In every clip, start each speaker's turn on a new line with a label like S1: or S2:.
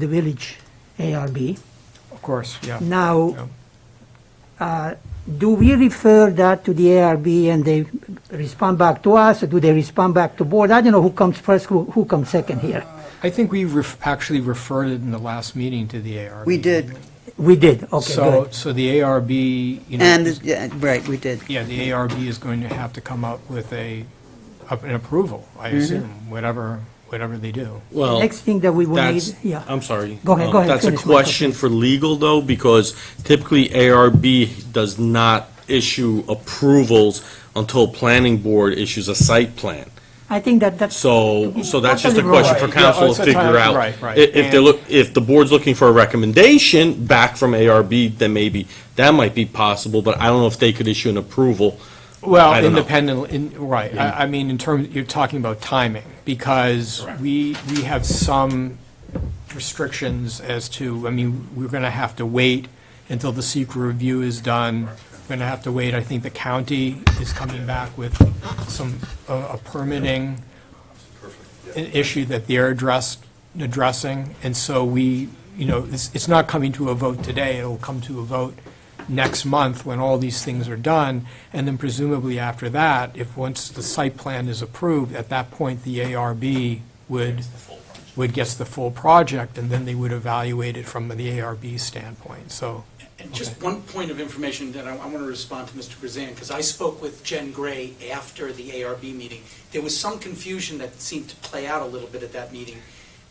S1: the village ARB.
S2: Of course, yeah. Yeah.
S1: Now, uh, do we refer that to the ARB and they respond back to us, or do they respond back to board? I don't know who comes first, who who comes second here.
S2: I think we ref- actually referred it in the last meeting to the ARB.
S3: We did,
S1: We did, okay,
S2: So,
S1: good.
S2: so the ARB, you know.
S3: and, yeah, right, we did.
S2: Yeah, the ARB is going to have to come up with a, up- an approval, I assume, whatever, whatever they do.
S4: Well,
S1: Next thing that we will need,
S4: that's,
S1: yeah.
S4: I'm sorry.
S1: Go ahead,
S4: Um,
S1: go ahead,
S4: That's a
S1: finish, Michael,
S4: question for legal, though, because typically ARB does not issue approvals until planning board issues a site plan.
S1: I think that that's.
S4: So, so that's just a
S1: Totally
S4: question for
S2: right. Yeah,
S4: council
S2: it's
S4: to
S2: a
S4: figure
S2: time-
S4: out.
S2: right, right.
S4: I- If they look, if the board's looking for a recommendation back from ARB, then maybe that might be possible, but I don't know if they could issue an approval.
S2: Well,
S4: I don't know.
S2: independently, in, right, I, I mean, in terms, you're talking about timing, because we, we have some restrictions as to, I mean, we're gonna have to wait until the secret review is done. We're gonna have to wait, I think the county is coming back with some, uh, a permitting i- issue that they're addressed, addressing, and so we, you know, it's, it's not coming to a vote today, it'll come to a vote next month when all these things are done, and then presumably after that, if, once the site plan is approved, at that point, the ARB would, would gets the full project, and then they would evaluate it from the ARB standpoint, so.
S5: And just one point of information that I want to respond to Mr. Grzan, because I spoke with Jen Gray after the ARB meeting. There was some confusion that seemed to play out a little bit at that meeting.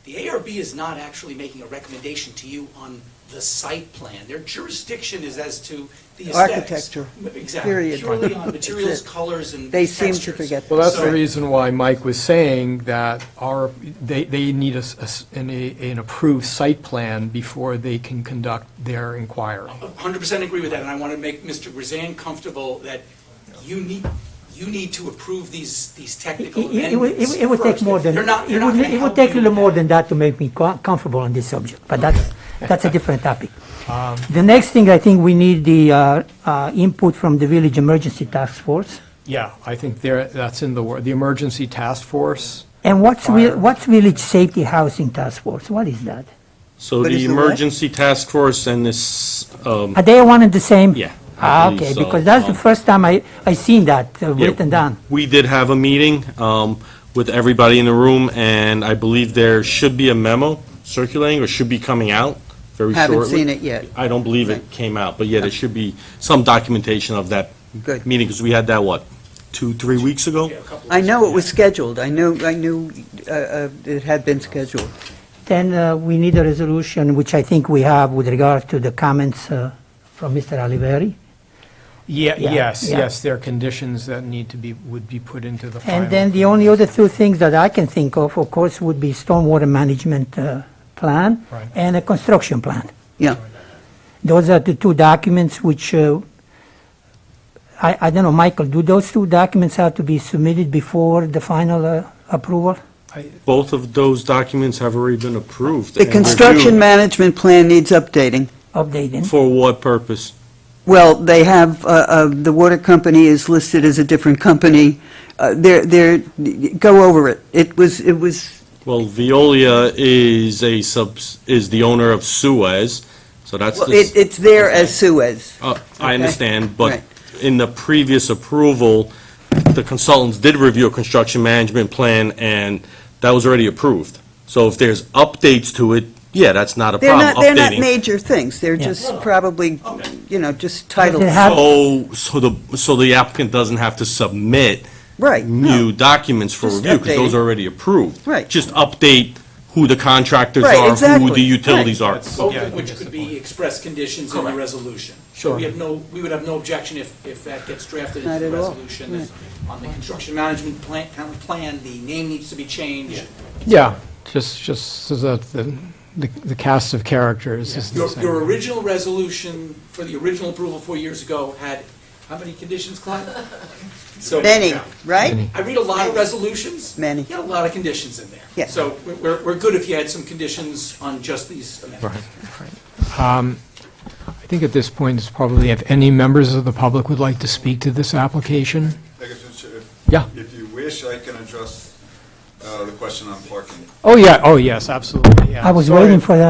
S5: The ARB is not actually making a recommendation to you on the site plan. Their jurisdiction is as to the aesthetics.
S3: Architecture,
S5: Exactly,
S3: period.
S5: purely on
S3: That's
S5: materials,
S3: it.
S5: colors, and
S3: They seem to
S5: textures.
S3: forget that.
S2: Well, that's the
S5: So-
S2: reason why Mike was saying that our, they, they need a s- a s- an, a- an approved site plan before they can conduct their inquiry.
S5: 100% agree with that, and I want to make Mr. Grzan comfortable that you need, you need to approve these, these
S1: It-
S5: technical
S1: it- it would-
S5: amendments
S1: It would take
S5: first.
S1: more than,
S5: They're not,
S1: it
S5: they're not
S1: would,
S5: going to
S1: it would
S5: help
S1: take a
S5: you
S1: little
S5: with
S1: more
S5: that.
S1: than that to make me co- comfortable on this subject, but that's, that's a different topic. Um, The next thing, I think we need the uh, uh, input from the Village Emergency Task Force.
S2: Yeah, I think there, that's in the, wor- the emergency task force.
S1: And what's, vil-
S2: Fire.
S1: what's Village Safety Housing Task Force? What is that?
S4: So
S3: What
S4: the
S3: is the what?
S4: emergency task force and this, um,
S1: Are they one and the same?
S4: Yeah, I
S1: Ah,
S4: believe
S1: okay,
S4: so.
S1: because that's the
S4: Um,
S1: first time I, I seen that uh,
S4: Yeah,
S1: written down.
S4: We did have a meeting um, with everybody in the room, and I believe there should be a memo circulating, or should be coming out very shortly.
S3: Haven't seen it yet.
S4: I don't believe it came out, but yeah, there should be some documentation of that
S3: Good.
S4: meeting, because we had that, what, two, three weeks ago?
S5: Yeah, a couple of
S3: I know it was scheduled, I knew, I knew uh, uh, it had been scheduled.
S1: Then uh, we need a resolution, which I think we have with regard to the comments uh, from Mr. Oliveri.
S2: Yeah,
S1: Yeah,
S2: yes,
S1: yeah.
S2: yes, there are conditions that need to be, would be put into the final.
S1: And then the only other two things that I can think of, of course, would be stormwater management uh, plan
S2: Right.
S1: and a construction plan.
S3: Yeah,
S1: Those are the two documents which, uh, I I don't know, Michael, do those two documents have to be submitted before the final uh, approval?
S4: Both of those documents have already been approved.
S3: the
S4: and
S3: construction
S4: reviewed.
S3: management plan needs updating.
S1: Updating?
S4: For what purpose?
S3: Well, they have, uh, uh, the water company is listed as a different company, Uh, they're, they're, go over it, it was, it was,
S4: Well, Veolia is a subs, is the owner of Suez, so that's
S3: well,
S4: the.
S3: it- it's there as Suez.
S4: Uh, I
S3: Okay.
S4: understand, but
S3: Right.
S4: in the previous approval, the consultants did review a construction management plan, and that was already approved. So if there's updates to it, yeah, that's not a
S3: They're
S4: problem,
S3: not, they're not
S4: updating.
S3: major things, they're
S1: Yeah.
S3: just probably, you know, just titles.
S1: They have-
S4: So, so the, so the applicant doesn't have to submit
S3: Right,
S4: new documents for
S3: Just
S4: review, because those
S3: updating.
S4: are already approved.
S3: Right.
S4: Just update who the contractors
S3: Right,
S4: are, who the
S3: exactly.
S4: utilities are.
S2: That's-
S5: Both
S2: Yeah, I
S5: of
S2: think
S5: which
S2: that's
S5: could
S2: the
S5: be express conditions in the resolution.
S2: Sure.
S5: We have no, we would have no objection if, if that gets drafted
S3: Not
S5: into the
S3: at all.
S5: resolution. If On the construction management plan, kind of plan, the name needs to be changed.
S2: Yeah, just, just so that the, the the cast of characters is the
S5: Your,
S2: same.
S5: your original resolution for the original approval four years ago had, how many conditions, Clyde? So-
S3: many, right?
S5: I read a lot of resolutions.
S3: Many.
S5: You had a lot of conditions in there.
S3: Yeah.
S5: So we're- we're, we're good if you had some conditions on just these amendments.
S2: I think at this point, it's probably, if any members of the public would like to speak to this application?
S6: I guess we should- if-
S2: Yeah.
S6: If you wish, I can address uh, the question on parking.
S2: Oh, yeah, oh, yes, absolutely, yeah.
S1: I was
S2: Sorry.
S1: waiting for that.